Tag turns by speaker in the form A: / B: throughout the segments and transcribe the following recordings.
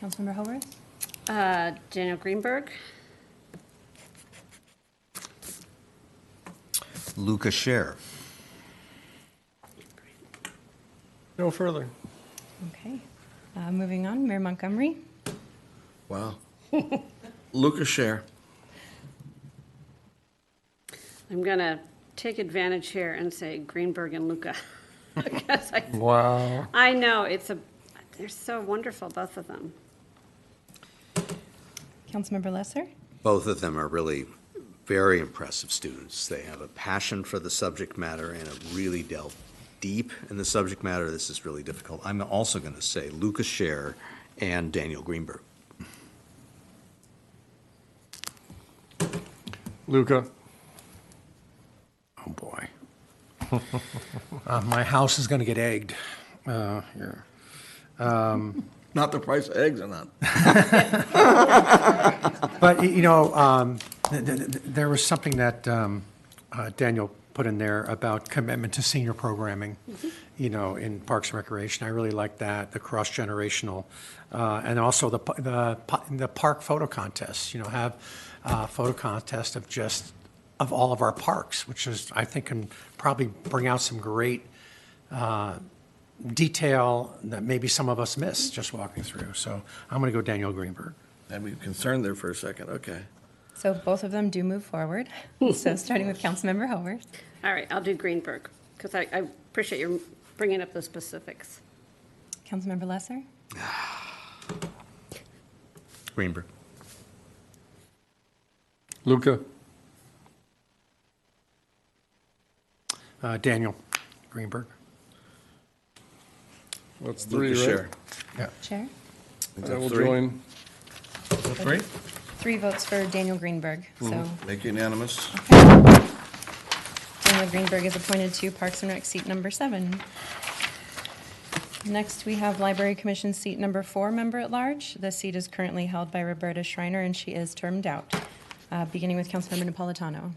A: Councilmember Holworth?
B: Uh, Daniel Greenberg,
C: Luca Scher.
D: No further.
A: Okay. Uh, Moving on, Mayor Montgomery,
E: Wow. Lucas Scher.
B: I'm going to take advantage here and say Greenberg and Luca. Because I,
D: Wow.
B: I know, it's a, they're so wonderful, both of them.
A: Councilmember Lesser,
C: Both of them are really very impressive students. They have a passion for the subject matter and have really delved deep in the subject matter. This is really difficult. I'm also going to say Luca Scher and Daniel Greenberg.
D: Luca.
E: Oh, boy.
F: Uh, my house is going to get egged. Uh, here.
E: Not the price of eggs or not.
F: But, y- you know, um, th- th- th- there was something that um, uh, Daniel put in there about commitment to senior programming, you know, in Parks and Recreation. I really like that, the cross-generational, uh, and also the, p- the p- the park photo contest, you know, have a photo contest of just, of all of our parks, which is, I think, can probably bring out some great uh, detail that maybe some of us miss just walking through. So I'm going to go Daniel Greenberg.
E: I'd be concerned there for a second, okay.
A: so both of them do move forward. So starting with Councilmember Holworth.
B: All right, I'll do Greenberg, because I, I appreciate your bringing up the specifics.
A: Councilmember Lesser,
C: Greenberg.
D: Luca.
F: Uh, Daniel Greenberg.
D: That's three,
E: Lucas
D: right?
E: Scher.
A: Chair.
E: That's
D: I will
E: three.
D: join.
E: Three?
A: Three votes for Daniel Greenberg. So
E: Make unanimous.
A: Daniel Greenberg is appointed to Parks and Rec seat number seven. Next, we have Library Commission seat number four, member-at-large. The seat is currently held by Roberta Schreiner, and she is termed out, Uh, beginning with Councilmember Napolitano.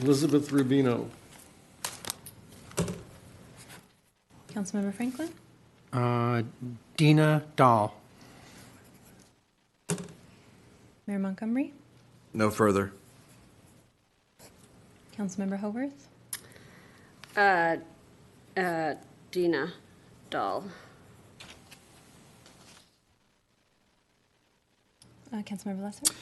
D: Elizabeth Rubino.
A: Councilmember Franklin?
F: Uh, Dina Dahl.
A: Mayor Montgomery?
E: No further.
A: Councilmember Howarth?
B: Uh, uh, Dina Dahl,
A: Uh, Councilmember Lesser?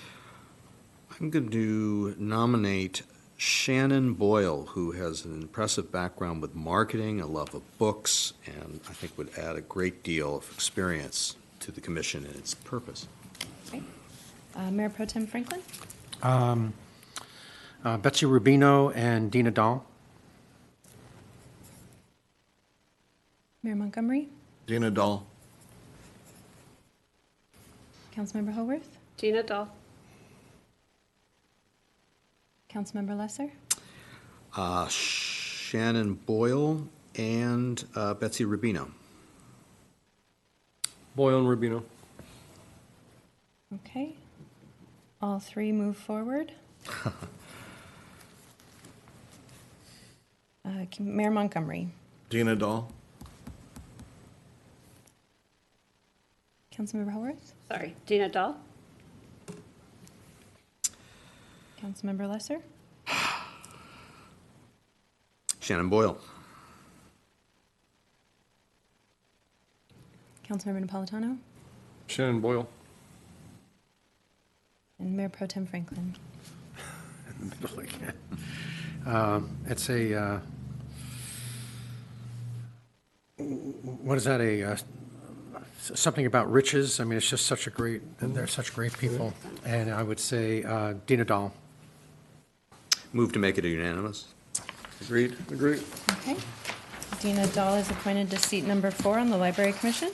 C: I'm going to nominate Shannon Boyle, who has an impressive background with marketing, a love of books, and I think would add a great deal of experience to the commission and its purpose.
A: Great. Uh, Mayor Pro Tem Franklin?
F: Uh, Betsy Rubino and Dina Dahl.
A: Mayor Montgomery?
E: Dina Dahl.
A: Councilmember Howarth?
B: Dina Dahl,
A: Councilmember Lesser?
C: Uh, Shannon Boyle and uh, Betsy Rubino.
D: Boyle and Rubino.
A: Okay. All three move forward. Uh, K- Mayor Montgomery?
E: Dina Dahl.
A: Councilmember Howarth?
B: sorry, Dina Dahl,
A: Councilmember Lesser?
C: Shannon Boyle.
A: Councilmember Napolitano?
D: Shannon Boyle.
A: And Mayor Pro Tem Franklin?
F: Um, It's a, uh, what is that, a, uh, something about riches? I mean, it's just such a great, and they're such great people. And I would say uh, Dina Dahl.
C: Move to make it unanimous.
E: Agreed.
D: Agreed.
A: Okay. Dina Dahl is appointed to seat number four on the Library Commission.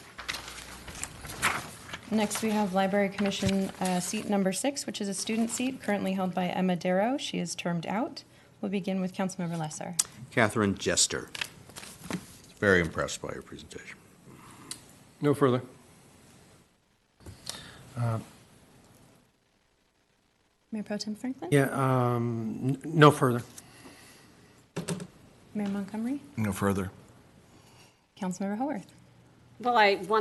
A: Next, we have Library Commission uh, seat number six, which is a student seat currently held by Emma Darrow. She is termed out. We'll begin with Councilmember Lesser.
C: Catherine Jester. Very impressed by your presentation.
D: No further.
A: Mayor Pro Tem Franklin?
F: Yeah, um, n- no further.
A: Mayor Montgomery?
E: No further.
A: Councilmember Haworth?
B: well, I want